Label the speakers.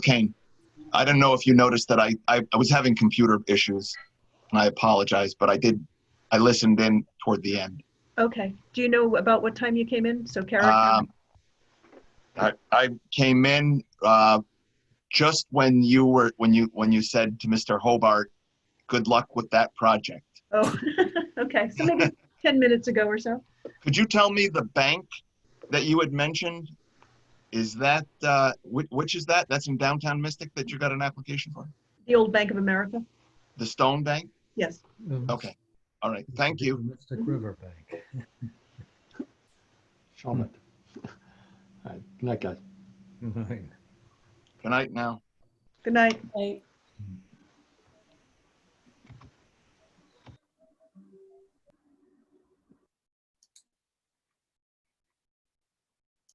Speaker 1: pain. I don't know if you noticed that I, I, I was having computer issues, and I apologize, but I did, I listened in toward the end.
Speaker 2: Okay. Do you know about what time you came in? So Karen,
Speaker 1: Um, I, I came in, uh, just when you were, when you, when you said to Mr. Hobart, good luck with that project.
Speaker 2: oh, okay. So maybe 10 minutes ago or so.
Speaker 1: Could you tell me the bank that you had mentioned? Is that, uh, which, which is that? That's in downtown Mystic that you got an application for?
Speaker 2: The old Bank of America?
Speaker 1: The Stone Bank?
Speaker 2: Yes.
Speaker 3: Um,
Speaker 1: Okay. All right. Thank you.
Speaker 3: Mystic River Bank.
Speaker 4: Charlotte. All right, good night, guys.
Speaker 3: Right.
Speaker 1: Good night now.
Speaker 2: Good night.
Speaker 5: Right.